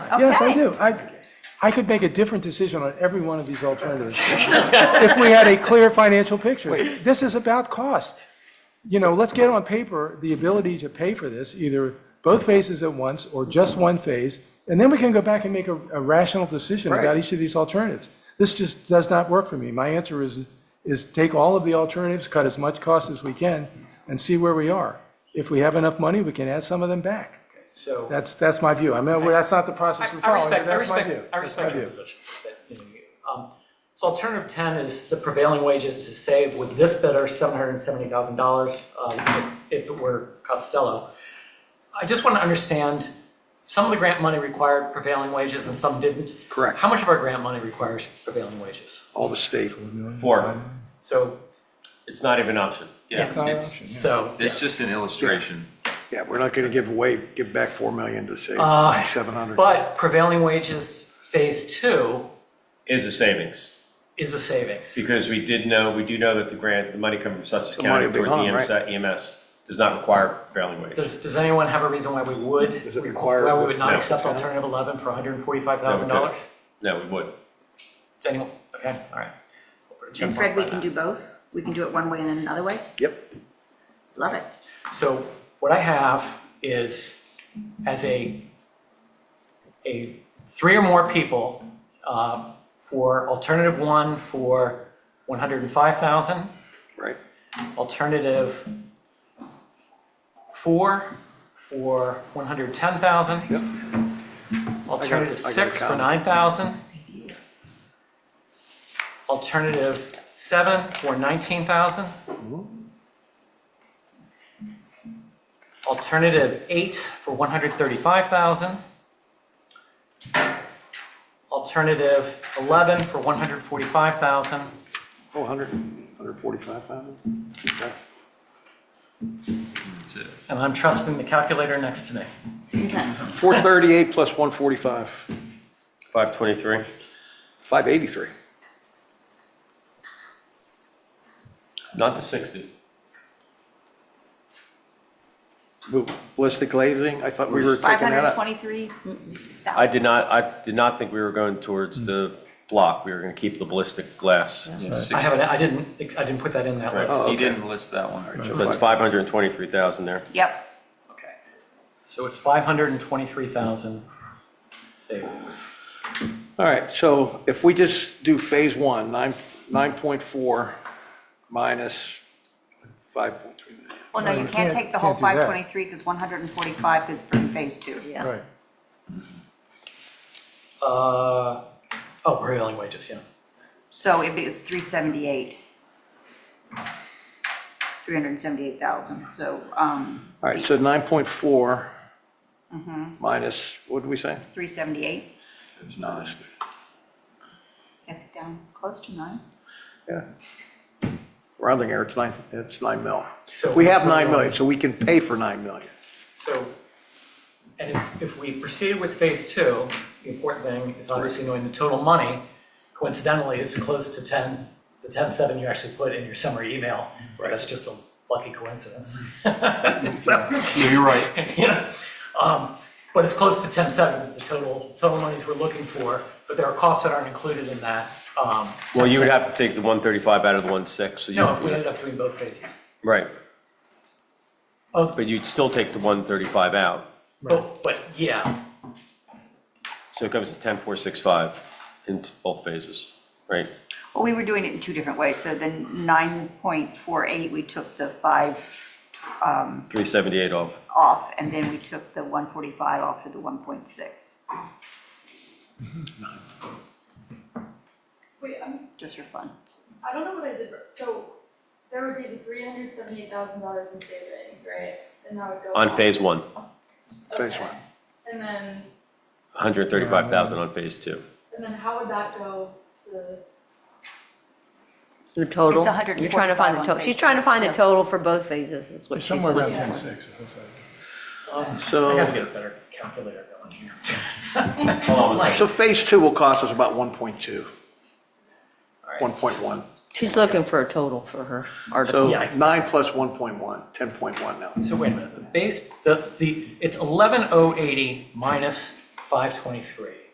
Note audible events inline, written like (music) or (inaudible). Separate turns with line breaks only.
Yes, I
Okay.
do. I, I could make a different decision on every one of these alternatives (laughs) if we had a clear financial picture. This is about cost. You know, let's get on paper the ability to pay for this, either both phases at once or just one phase, and then we can go back and make a a rational decision about each of these alternatives. This just does not work for me. My answer is, is take all of the alternatives, cut as much cost as we can, and see where we are. If we have enough money, we can add some of them back.
So.
That's, that's my view. I mean, that's not the process
I
we're
I
following, but
respect, I
that's my view.
respect, I
That's my
respect your
view.
position. that, you know, you- um, So alternative 10 is the prevailing wages to save with this bidder, $770,000 um, if if it were Costello. I just want to understand, some of the grant money required prevailing wages and some didn't.
Correct.
How much of our grant money requires prevailing wages?
all the state.
Four.
So,
It's not even an option. Yeah.
It's not an
it's-
option, yeah.
so.
It's just an illustration.
Yeah, we're not gonna give away, give back 4 million to save
Uh,
700.
But prevailing wages, phase two,
Is a savings,
is a savings.
because we did know, we do know that the grant, the money coming from Sussex
The money
County
will be
towards
gone,
the EMS EMS does not require prevailing wage.
Does, does anyone have a reason why we would?
Does it require-
Why we would not
No.
accept alternative 11 for $145,000? Does
No, we couldn't. No, we would.
anyone, okay, all right. We'll put a check
And Fred,
mark
we
by
can
that.
do both. We can do it one way and then another way.
Yep,
Love it.
So what I have is, as a, a three or more people, uh, for alternative one for 105,000,
right.
alternative four for 110,000.
Yep.
Alternative
I got a
six for
comment.
9,000. Alternative seven for 19,000. Alternative eight for 135,000. Alternative 11 for 145,000.
Oh, 100, 145,000? Okay.
And I'm trusting the calculator next to me.
438 plus 145,
523.
583.
Not the 60.
Who- Ballistic glazing, I thought we were taking that up.
523.
I did not, I did not think we were going towards the block. We were going to keep the ballistic glass.
I haven't, I didn't, I didn't put that in that list.
okay.
He didn't list that one.
So that's 523,000 there.
Yep.
Okay. So it's 523,000 savings.
All right, so if we just do phase one, 9, 9.4 minus 5.3 million.
Well, no, you can't
Uh, can't-
take the whole
can't do that.
523 because 145 is from phase two. Yeah.
Right.
Uh, oh, prevailing wages, yeah.
So it'd be, it's 378. 378,000. So, um,
All right, so 9.4 minus, what did we say?
378.
It's not.
That's down close to nine.
Yeah. Rounding error, it's nine, it's 9 mil.
So-
We have 9 million, so we can pay for 9 million.
So, and if, if we proceed with phase two, the important thing is obviously knowing the total money. Coincidentally, it's close to 10, the 10.7 you actually put in your summary email. That's just a lucky coincidence. (laughs)
Mm-hmm.
So,
You're
(laughs)
right.
you know, um, But it's close to 10.7 is the total, total monies we're looking for, but there are costs that aren't included in that. um,
Well, you would
10.7.
have to take the 135 out of the 16, so you.
No, if we ended up doing both phases.
Right.
Oh.
But you'd still take the 135 out.
But, but yeah,
So it comes to 10,465 in both phases, right?
Well, we were doing it in two different ways. So then 9.48, we took the five um,
378 off.
off, and then we took the 145 off to the 1.6,
Wait, I'm,
just for fun.
I don't know what I did, wrong. so there would be three hundred seventy-eight thousand dollars in savings, right? And that would go.
On
up.
phase one,
Phase
Okay.
one.
And then,
135,000 on phase two.
and then how would that go to,
The total?
It's 145
You're trying to find the
on
total. She's
Facebook.
trying to find the
Yeah.
total for both phases, is what she's
Somewhere around
looking.
10.6. it looks like.
I gotta
So,
get a better calculator going here.
Hold on one second.
so phase two will cost us about 1.2,
All right.
1.1.
She's looking for a total for her
So
article.
Yeah, I-
9 plus 1.1, 10.1 now.
So wait a minute, the base, the, the, it's eleven oh eighty minus 523.